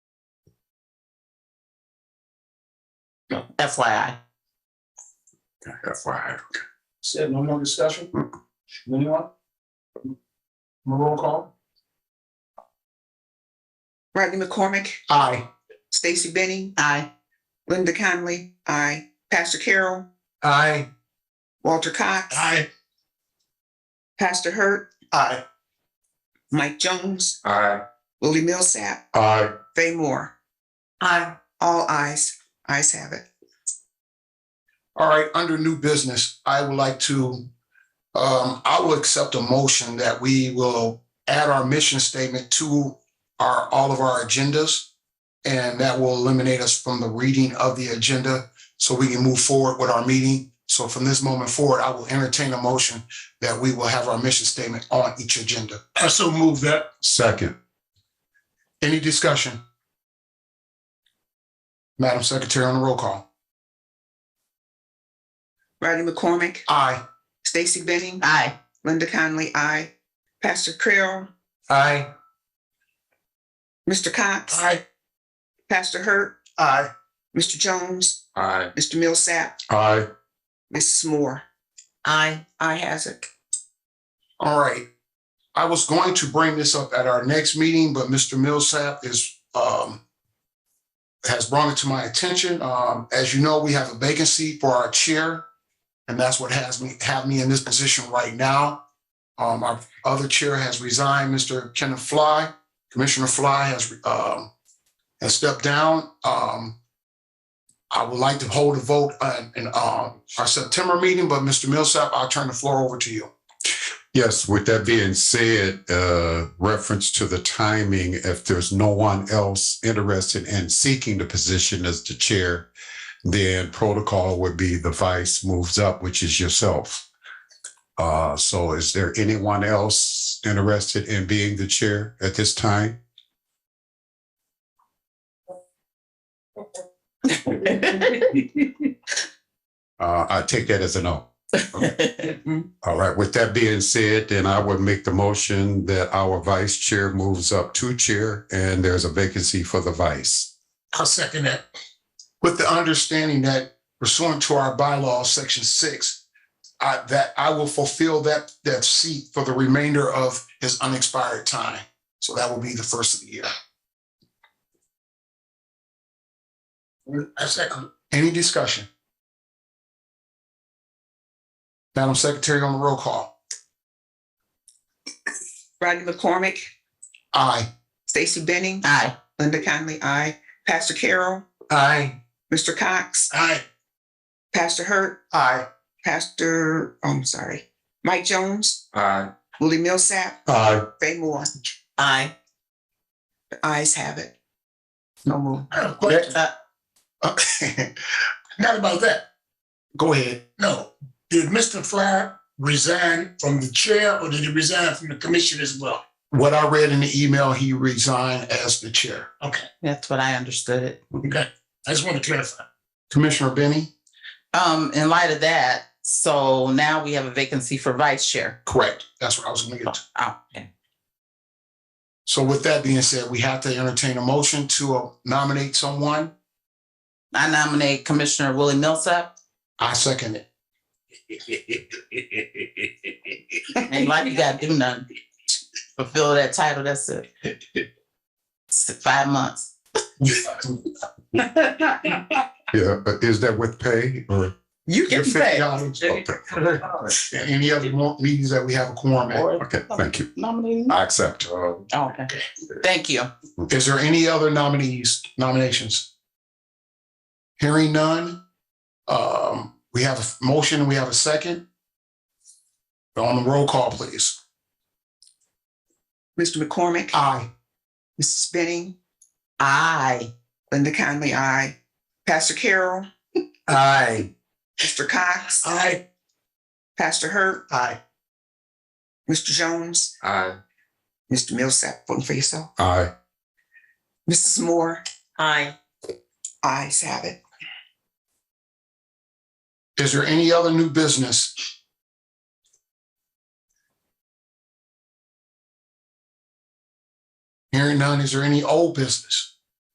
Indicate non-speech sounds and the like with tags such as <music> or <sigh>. FYI. FYI. Said no more discussion? Anyone? Roll call? Rodney McCormick, Aye. Stacy Benning, Aye. Linda Conley, aye. Pastor Carroll, Aye. Walter Cox, Aye. Pastor Hurt, Aye. Mike Jones, Aye. Willie Millsap, Aye. Fay Moore. Aye. All ayes. Ayes have it. All right, under new business, I would like to, um, I will accept a motion that we will add our mission statement to our, all of our agendas. And that will eliminate us from the reading of the agenda so we can move forward with our meeting. So from this moment forward, I will entertain a motion that we will have our mission statement on each agenda. I so move that. Second. Any discussion? Madam Secretary on the roll call. Rodney McCormick, Aye. Stacy Benning, Aye. Linda Conley, aye. Pastor Carroll, Aye. Mr. Cox, Aye. Pastor Hurt, Aye. Mr. Jones, Aye. Mr. Millsap, Aye. Mrs. Moore. Aye. Aye has <laughs> it. All right. I was going to bring this up at our next meeting, but Mr. Millsap is, um, has brought it to my attention. Um, as you know, we have a vacancy for our chair. And that's what has me, have me in this position right now. Um, our other chair has resigned, Mr. Kenneth Fly. Commissioner Fly has, um, has stepped down. Um, I would like to hold a vote on, in, um, our September meeting, but Mr. Millsap, I'll turn the floor over to you. Yes, with that being said, uh, reference to the timing, if there's no one else interested in seeking the position as the chair, then protocol would be the vice moves up, which is yourself. Uh, so is there anyone else interested in being the chair at this time? Uh, I take that as a no. All right, with that being said, then I would make the motion that our vice chair moves up to chair and there's a vacancy for the vice. I'll second that. with the understanding that pursuant to our bylaw, section six, I, that I will fulfill that, that seat for the remainder of his unexpired time. So that will be the first of the year. I second. Any discussion? Madam Secretary on the roll call. Rodney McCormick, Aye. Stacy Benning, Aye. Linda Conley, aye. Pastor Carroll, Aye. Mr. Cox, Aye. Pastor Hurt, Aye. Pastor, oh, I'm sorry, Mike Jones, Aye. Willie Millsap, Aye. Fay Moore. Aye. The ayes have it. No uh, move. I have a question. Uh, Not about that. Go ahead. No. Did Mr. Fly resign from the chair or did he resign from the commission as well? What I read in the email, he resigned as the chair. Okay, <laughs> That's what I understood it. okay. I just want to clarify. Commissioner Benny? Um, in light of that, so now we have a <laughs> vacancy for vice chair. Correct. That's what I was gonna get to. Oh, okay. So with that being said, we have to entertain a motion to uh, nominate someone. I nominate Commissioner Willie Millsap. I second it. Ain't like you gotta do nothing. Fulfill that title, that's it. It's Five months. Yeah, uh, is that with pay or? You Your can fifty say. dollars. Okay, Any other mo- meetings that we have a quorum at? Uh, okay, thank you. Nominating. I accept. Oh, Oh, Okay. Thank you. Is there any other nominees, nominations? Hearing none. Um, we have a motion, we have a second. On the roll call, please. Mr. Uh. McCormick, Aye. Mrs. Benning, Aye. Linda Conley, aye. Pastor Carroll, Aye. Mr. Cox, Aye. Pastor Hurt, Aye. Mr. Jones, Aye. Mr. Millsap, voting for yourself. Aye. Mrs. Moore, Aye. ayes have it. Is there any other new business? Hearing none, is there any old business?